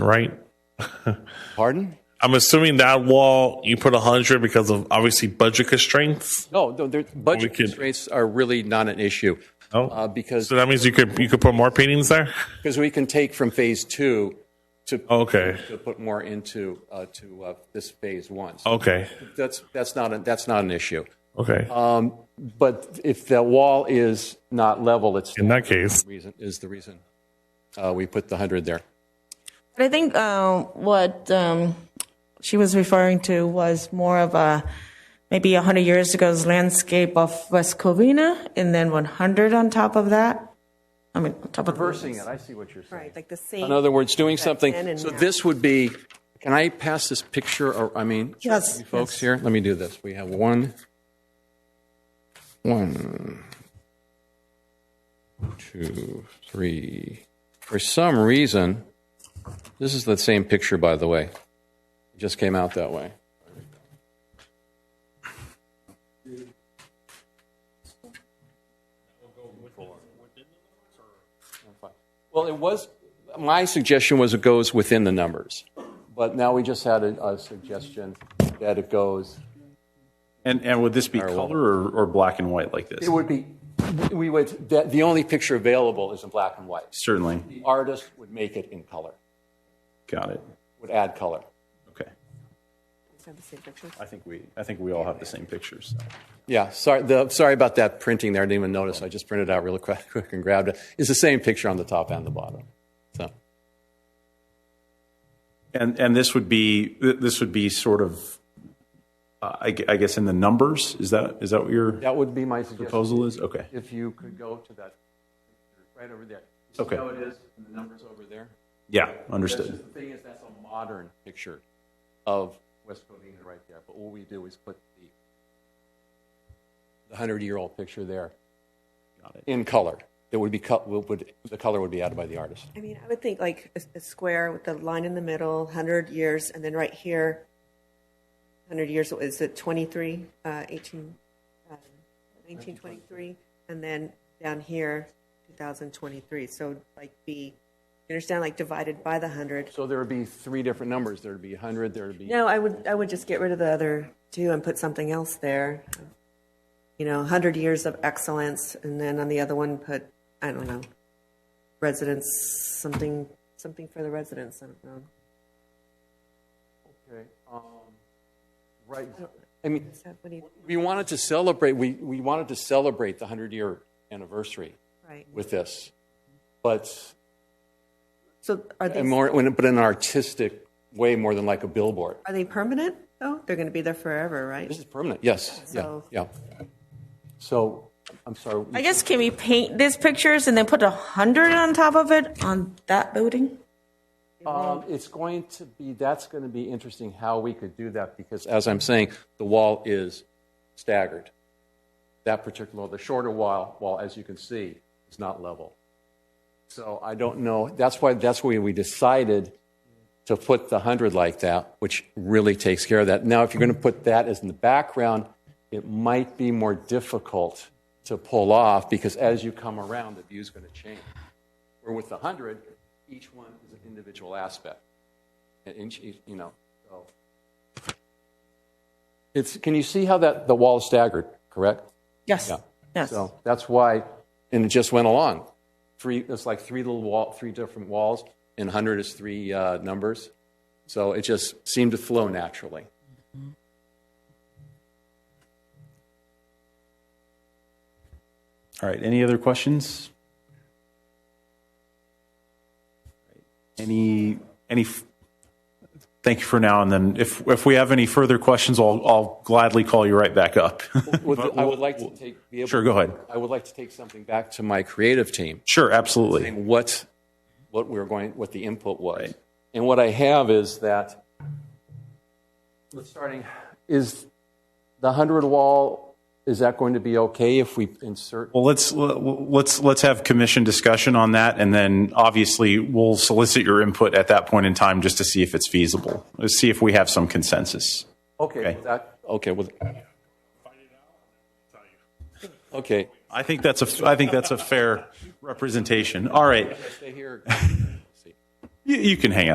right? Pardon? I'm assuming that wall you put 100 because of obviously budget constraints. No, no, there- We budget could- constraints are really not an issue No, uh, because so that means you could you could put more paintings there. because we can take from phase two to Okay, to put more into uh, to uh, this phase one. So okay, That's that's not a, that's not an issue. okay. Um, but if that wall is not level, it's In that case, the reason is the reason uh, we put the hundred there. But I think um, what um, she was referring to was more of a maybe 100 years ago's landscape of West Covina and then 100 on top of that. I mean, on top of Reversing it, I see what you're saying. Right, like the same. In other words, doing then something. and So now. this would be. Can I pass this picture? Or I mean, Yes, you folks here. Let me do this. We have one, one, two, three. For some reason, this is the same picture. By the way, it just came out that way. Well, it was, my suggestion was it goes within the numbers, but now we just had a, a suggestion that it goes, And, and would this be color or, or black and white like this? it would be, we would, the, the only picture available is in black and white. Certainly. The artist would make it in color, Got it. would add color. Okay. It's not the same picture. I think we, I think we all have the same pictures. Yeah, sorry, the, sorry about that printing there, I didn't even notice, I just printed it out really quick quick and grabbed it. It's the same picture on the top and the bottom, so. And, and this would be, th- this would be sort of, uh, I, gue- I guess in the numbers, is that, is that what your That would be my suggestion. proposal is? Okay. If you could go to that, picture right over there. You Okay. See how it is, and the number's over there? Yeah, That's just understood. the thing is, that's a modern picture of West Covina right there, but all we do is put the the hundred-year-old picture there in color. It would be cut, would, the color would be added by the artist. I mean, I would think like a, a square with the line in the middle, 100 years, and then right here, 100 years, is it 23, uh, 18, uh, 1923, and then down here, 2023. So like be, you understand, like divided by the 100. So there would be three different numbers. There'd be hundred, there'd be, No, I would, I would just get rid of the other two and put something else there. You know, 100 years of excellence, and then on the other one, put, I don't know, residents, something, something for the residents. I don't know. okay, um, right. I mean, Is that what he- we wanted to celebrate, we, we wanted to celebrate the hundred-year anniversary Right. with this, but So are and they, more, but in an artistic way more than like a billboard. are they permanent though? They're going to be there forever, right? This is permanent, yes, yeah, So- yeah. So, I'm sorry, I guess can we paint these pictures and then put 100 on top of it on that building? um, it's going to be, that's going to be interesting how we could do that, because as I'm saying, the wall is staggered. That particular, the shorter wall, wall, as you can see, is not level. So I don't know, that's why, that's why we decided to put the 100 like that, which really takes care of that. Now, if you're going to put that as in the background, it might be more difficult to pull off because as you come around, the view's going to change. Where with the 100, each one is an individual aspect. And each, each- you know, so. It's, can you see how that, the wall is staggered, correct? Yes. Yeah. Yes. So that's why, and it just went along. Three, it's like three little wall, three different walls, and 100 is three uh, numbers. So it just seemed to flow naturally. All right. Any other questions? Any, any, f- thank you for now. And then if, if we have any further questions, I'll, I'll gladly call you right back up. Would- I would like to take, be able Sure, go ahead. I would like to take something back to my creative team. Sure, absolutely. and what what we were going, what the input was. And what I have is that let's starting is the hundred wall. Is that going to be okay if we insert? Well, let's let's let's have commission discussion on that, and then obviously we'll solicit your input at that point in time just to see if it's feasible. Let's see if we have some consensus. Okay, with that, okay, with. Okay, I think that's a I think that's a fair representation. All right, stay here. you, you can hang out.